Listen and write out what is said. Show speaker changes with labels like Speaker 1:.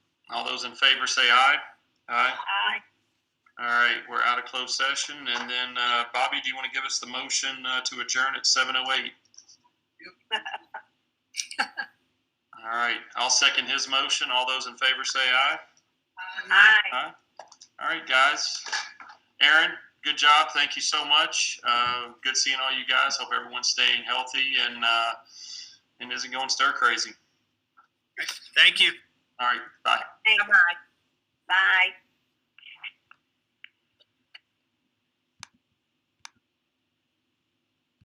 Speaker 1: All those in favor say aye. Aye.
Speaker 2: Aye.
Speaker 1: All right, we're out of closed session. And then, uh, Bobby, do you want to give us the motion uh, to adjourn at 7:08? All right, I'll second his motion. All those in favor say aye.
Speaker 2: Aye.
Speaker 1: Aye. All right, guys. Aaron, good job. Thank you so much. Uh, good seeing all you guys. Hope everyone's staying healthy and uh, and isn't going stir crazy.
Speaker 3: Thank you.
Speaker 1: All right, bye.
Speaker 2: Bye. Bye.